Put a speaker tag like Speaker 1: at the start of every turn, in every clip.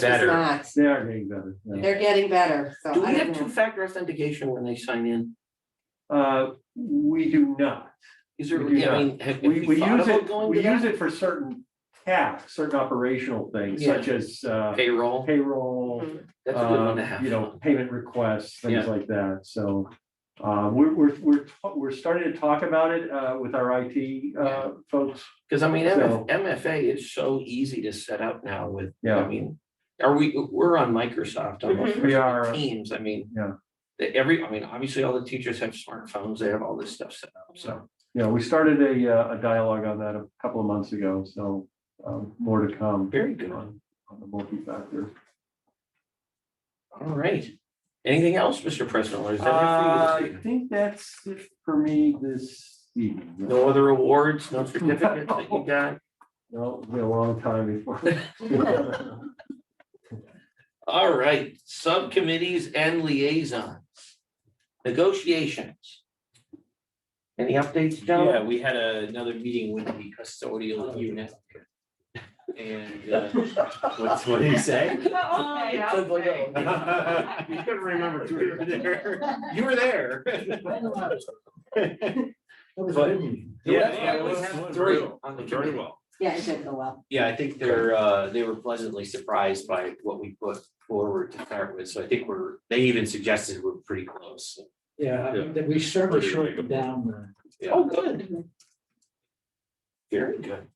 Speaker 1: Better.
Speaker 2: It's
Speaker 3: They are getting better.
Speaker 2: not.
Speaker 3: yeah.
Speaker 2: They're getting better, so
Speaker 1: Do
Speaker 2: I
Speaker 1: we
Speaker 2: don't
Speaker 1: have two
Speaker 2: know.
Speaker 1: factor authentication when they sign in?
Speaker 3: Uh, we do not.
Speaker 1: Is there,
Speaker 3: We do
Speaker 1: I mean, have have
Speaker 3: We,
Speaker 1: we
Speaker 3: we
Speaker 1: thought
Speaker 3: use
Speaker 1: about
Speaker 3: it,
Speaker 1: going to
Speaker 3: we use
Speaker 1: that?
Speaker 3: it for certain tasks, certain operational things
Speaker 1: Yeah.
Speaker 3: such as uh,
Speaker 1: Payroll,
Speaker 3: payroll,
Speaker 2: Mhm.
Speaker 1: that's a good one to
Speaker 3: um,
Speaker 1: have.
Speaker 3: you know, payment requests,
Speaker 1: Yeah.
Speaker 3: things like that. So uh, we're, we're, we're, ta- we're starting to talk about it uh, with our IT uh, folks.
Speaker 1: Cause I mean, MF-
Speaker 3: So-
Speaker 1: MFA is so easy to set up now with, I
Speaker 3: Yeah.
Speaker 1: mean, are we, we're on Microsoft almost.
Speaker 2: Mhm.
Speaker 3: We
Speaker 1: versus
Speaker 3: are.
Speaker 1: Teams, I mean.
Speaker 3: Yeah.
Speaker 1: the- Every, I mean, obviously all the teachers have smartphones, they have all this stuff set up, so.
Speaker 3: You know, we started a, uh, a dialogue on that a couple of months ago. So um, more to come
Speaker 1: Very good. All
Speaker 3: on on the multi-factor.
Speaker 1: right. Anything else, Mr. President? or is that
Speaker 3: Uh,
Speaker 1: it for you
Speaker 3: I
Speaker 1: this evening?
Speaker 3: think that's it for me this evening.
Speaker 1: No other awards, no certificates that you got?
Speaker 3: No, it'll be a long time before.
Speaker 1: All right, subcommittees and liaisons. Negotiations. Any updates,
Speaker 4: Yeah,
Speaker 1: John?
Speaker 4: we had another meeting with the custodial unit. And uh, what's what do you say? You couldn't remember if you were there. You were there. But, yeah, yeah, it was three on the committee.
Speaker 2: Yeah, it did go well.
Speaker 4: Yeah, I think they're, uh, they were pleasantly surprised by what we put forward to start with, so I think we're, they even suggested we're pretty close.
Speaker 5: Yeah, I
Speaker 4: Yeah.
Speaker 5: mean, that we certainly shortened down
Speaker 1: Oh, good. Very good.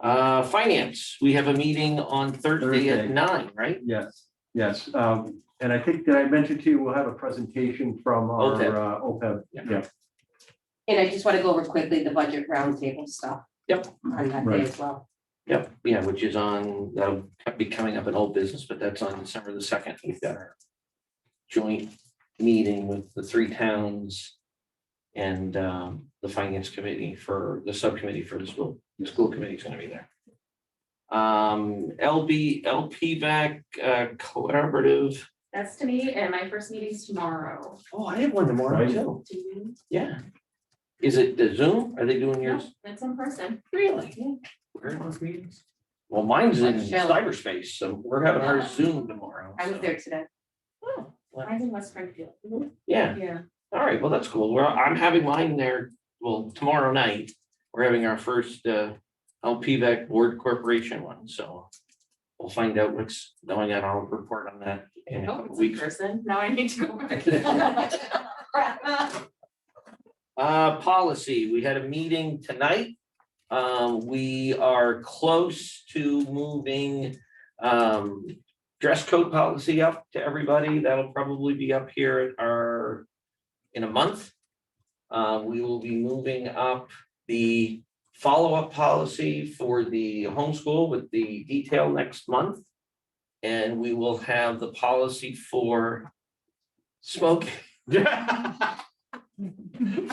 Speaker 1: Uh, finance, we have a meeting on Thursday at
Speaker 3: Thursday.
Speaker 1: nine, right?
Speaker 3: Yes, yes. Um, and I think that I mentioned to you, we'll have a presentation from our
Speaker 1: OPEB.
Speaker 3: uh, OPEB.
Speaker 1: Yeah.
Speaker 3: Yeah,
Speaker 2: And I just want to go over quickly the budget roundtable stuff.
Speaker 1: Yep.
Speaker 2: On that
Speaker 3: Right.
Speaker 2: day as well.
Speaker 1: Yep, yeah, which is on, that'll be coming up in old business, but that's on December the second. We've got our joint meeting with the three towns and um, the finance committee for the subcommittee for the school. The school committee is going to be there. Um, LB, LP back uh, collaborative.
Speaker 6: That's to me, and my first meeting's tomorrow.
Speaker 1: Oh, I have one tomorrow
Speaker 3: Right.
Speaker 1: too.
Speaker 6: Do you?
Speaker 1: Yeah. Is it the Zoom? Are they doing
Speaker 6: No,
Speaker 1: yours?
Speaker 6: that's in person.
Speaker 1: Really? Where are those meetings? Well, mine's in
Speaker 2: Like Shell.
Speaker 1: cyberspace, so we're having our Zoom tomorrow.
Speaker 2: I was
Speaker 1: so-
Speaker 2: there today.
Speaker 1: Oh, well,
Speaker 6: Mine's in West Springfield.
Speaker 1: Yeah,
Speaker 6: Yeah.
Speaker 1: all right, well, that's cool. Well, I'm having mine there, well, tomorrow night. We're having our first uh LPVAC Board Corporation one, so we'll find out what's going on. I'll report on that in a
Speaker 6: Oh,
Speaker 1: couple
Speaker 6: it's in
Speaker 1: weeks.
Speaker 6: person. Now I need to go back.
Speaker 1: Uh, policy, we had a meeting tonight. Um, we are close to moving um dress code policy up to everybody. That'll probably be up here at our in a month. Uh, we will be moving up the follow-up policy for the homeschool with the detail next month. And we will have the policy for smoking.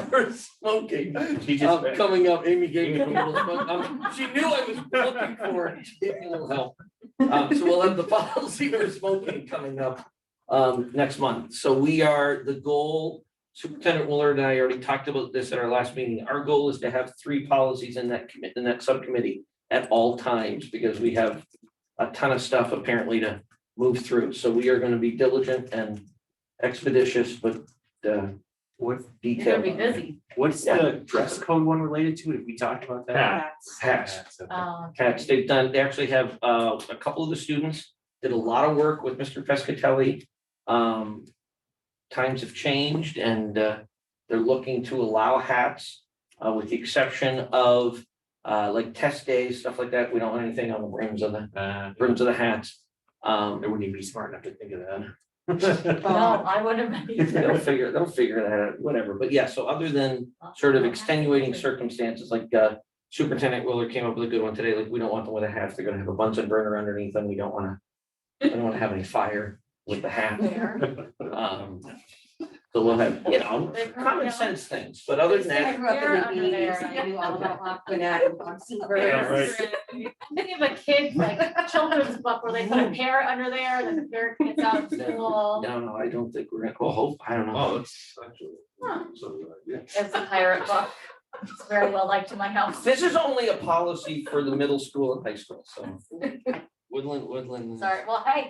Speaker 1: For smoking.
Speaker 4: She just-
Speaker 1: Uh, coming up, Amy gave me a little, smoke. Um, she knew I was looking for it, she gave me a little help. Um, so we'll have the policy for smoking coming up, um, next month. So we are, the goal, Superintendent Willard and I already talked about this at our last meeting. Our goal is to have three policies in that commit, in that subcommittee at all times, because we have a ton of stuff apparently to move through. So we are gonna be diligent and expeditious, but, uh, with
Speaker 6: It's
Speaker 1: detail.
Speaker 6: gonna be busy.
Speaker 4: What's the dress code one related to? Have we talked about that? Uh,
Speaker 1: Hats.
Speaker 6: Oh,
Speaker 1: Cats, they've done, they actually have uh a couple of the students did a lot of work with Mr. Pescatelli. Um. Times have changed and uh they're looking to allow hats uh with the exception of uh like test days, stuff like that. We don't want anything on the rims of the
Speaker 4: Uh,
Speaker 1: rims of the hats.
Speaker 4: I
Speaker 1: Um,
Speaker 4: wouldn't even be smart enough to think of that.
Speaker 6: No, I wouldn't.
Speaker 1: they'll figure, they'll figure that out, whatever. But yeah, so other than sort of extenuating circumstances, like uh Superintendent Willard came up with a good one today, like, we don't want them with a hat, they're gonna have a Bunsen burner underneath them, we don't wanna. We don't wanna have any fire with the hat,
Speaker 6: There.
Speaker 1: um, so we'll have, you know, common sense things, but other than
Speaker 2: I
Speaker 1: that,
Speaker 2: grew up in
Speaker 6: They're
Speaker 2: the
Speaker 6: under
Speaker 2: eighties,
Speaker 6: there.
Speaker 2: I knew all about Aquanet and Foxy Bird.
Speaker 3: right.
Speaker 6: Many of the kids, like children's book where they put a parrot under there, then the parrot gets out of school.
Speaker 1: no, no, I don't think we're gonna, oh, hope, I don't know.
Speaker 4: Oh, it's actually. so, yeah.
Speaker 6: It's a pirate book. It's very well liked in my house.
Speaker 1: This is only a policy for the middle school and high school, so. Woodland, Woodland.
Speaker 6: Sorry, well, hey,